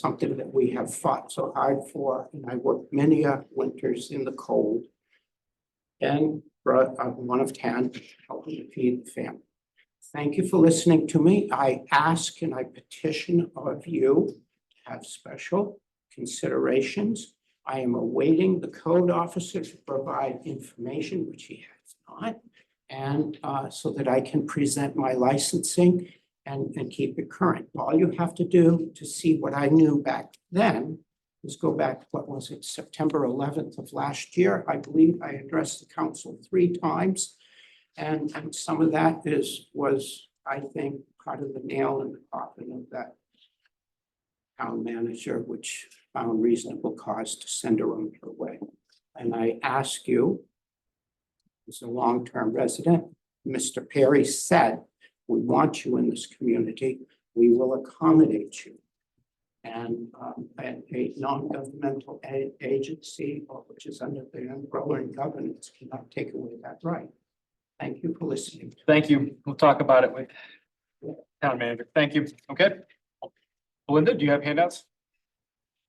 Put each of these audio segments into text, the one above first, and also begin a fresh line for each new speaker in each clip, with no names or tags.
something that we have fought so hard for, and I worked many uh, winters in the cold. And brought uh, one of ten, helping to feed the family. Thank you for listening to me. I ask and I petition of you to have special considerations. I am awaiting the code officer to provide information, which he has not. And uh, so that I can present my licensing and, and keep it current. All you have to do to see what I knew back then is go back, what was it, September eleventh of last year? I believe I addressed the council three times. And, and some of that is, was, I think, part of the nail in the coffin of that town manager, which found reasonable cause to send her on her way. And I ask you, as a long-term resident, Mr. Perry said we want you in this community, we will accommodate you. And um, and a non-governmental a- agency, or which is under the umbrella and governance, cannot take away that right. Thank you for listening.
Thank you. We'll talk about it with town manager. Thank you. Okay. Belinda, do you have handouts?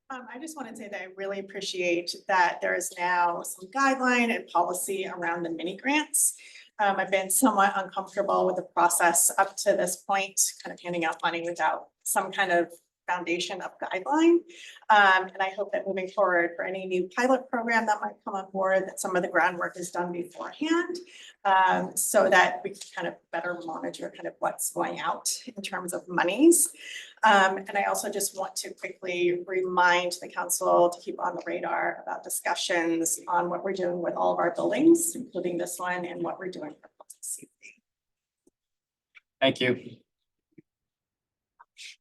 Um, I just wanted to say that I really appreciate that there is now some guideline and policy around the mini grants. Um, I've been somewhat uncomfortable with the process up to this point, kind of handing out money without some kind of foundation of guideline. Um, and I hope that moving forward for any new pilot program that might come on board, that some of the groundwork is done beforehand. um, so that we can kind of better monitor kind of what's going out in terms of monies. Um, and I also just want to quickly remind the council to keep on the radar about discussions on what we're doing with all of our buildings, including this one and what we're doing for public safety.
Thank you.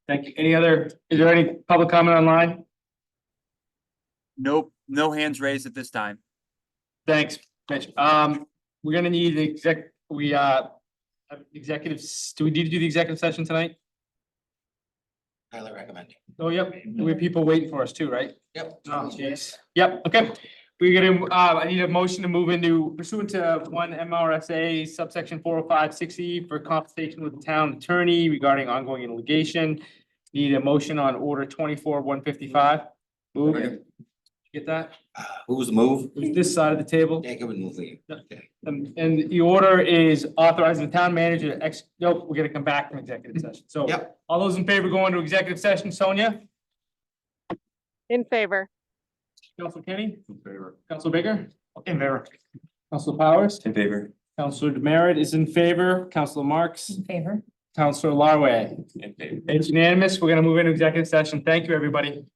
Thank you. Any other, is there any public comment online?
Nope, no hands raised at this time.
Thanks, Mitch. Um, we're gonna need the exec, we, uh, have executives, do we need to do the executive session tonight?
Highly recommend.
Oh, yep. We have people waiting for us too, right?
Yep.
Oh, jeez. Yep, okay. We're gonna, uh, I need a motion to move into pursuant to one MRSA subsection four oh five sixty for compensation with the town attorney regarding ongoing litigation. Need a motion on order twenty-four one fifty-five. Move.
Second.
Get that?
Uh, Who was the move?
It was this side of the table.
Jacob and Lee.
And, Um, and the order is authorizing the town manager to ex, nope, we're gonna come back from executive session. So
Yep.
all those in favor go into executive session, Sonia?
In favor.
Council Kenny? In favor. Council Baker? In favor. Council Powers?
In favor.
Counselor Demerit is in favor. Counselor Marks? In favor. Counselor Larway?
In favor.
It's unanimous. We're gonna move into executive session. Thank you, everybody.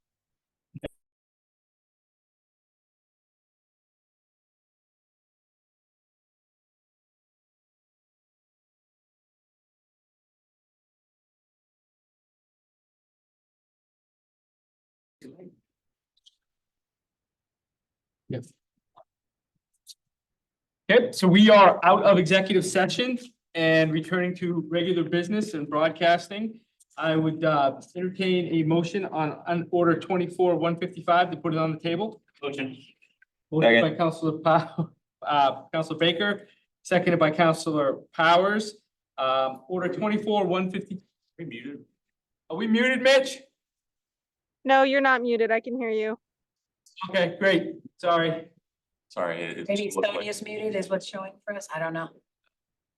Yes. Okay, so we are out of executive session and returning to regular business and broadcasting. I would uh, entertain a motion on, on order twenty-four, one fifty-five to put it on the table. Motion. Motion by Counselor Pow, uh, Counselor Baker, seconded by Counselor Powers. Um, order twenty-four, one fifty. We muted. Are we muted, Mitch?
No, you're not muted. I can hear you.
Okay, great, sorry.
Sorry, it- it.
Maybe
just looked like-
Sonia's muted is what's showing for us. I don't know.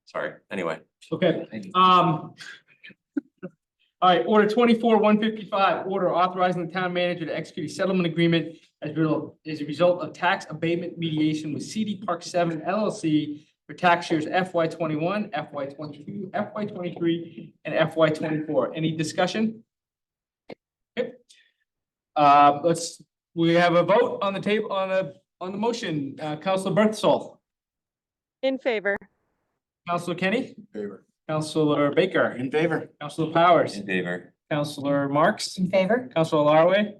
Sorry, anyway.
Okay, Um. All right, order twenty-four, one fifty-five, order authorizing the town manager to execute a settlement agreement as real, as a result of tax abatement mediation with CD Park Seven LLC for tax years FY twenty-one, FY twenty-two, FY twenty-three, and FY twenty-four. Any discussion? Okay. Uh, let's, we have a vote on the table, on the, on the motion. Uh, Counselor Berthasol,
In favor.
Counselor Kenny,
Favor.
Counselor Baker,
In favor?
Counselor Powers.
In favor.
Counselor Marks,
In favor?
Counselor Larway,
In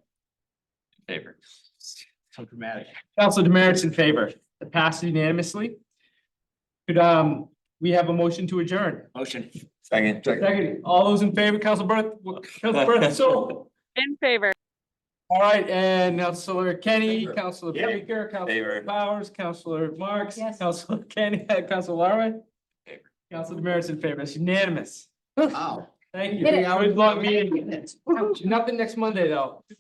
Favor.
so dramatic. Counselor Demerits in favor. It passed unanimously. Could, um, we have a motion to adjourn?
Motion.
Second.
Second, all those in favor, Counselor Berth, Counselor Berth, so.
In favor.
All right, and Counselor Kenny, Counselor
Yep.
Baker, Counselor
Favor.
Powers, Counselor Marks,
Yes.
Counselor Kenny, Counselor Larway.
Favor.
Counselor Demerits in favor. It's unanimous.
Wow.
Thank you.
Did it.
Good luck meeting. Nothing next Monday, though.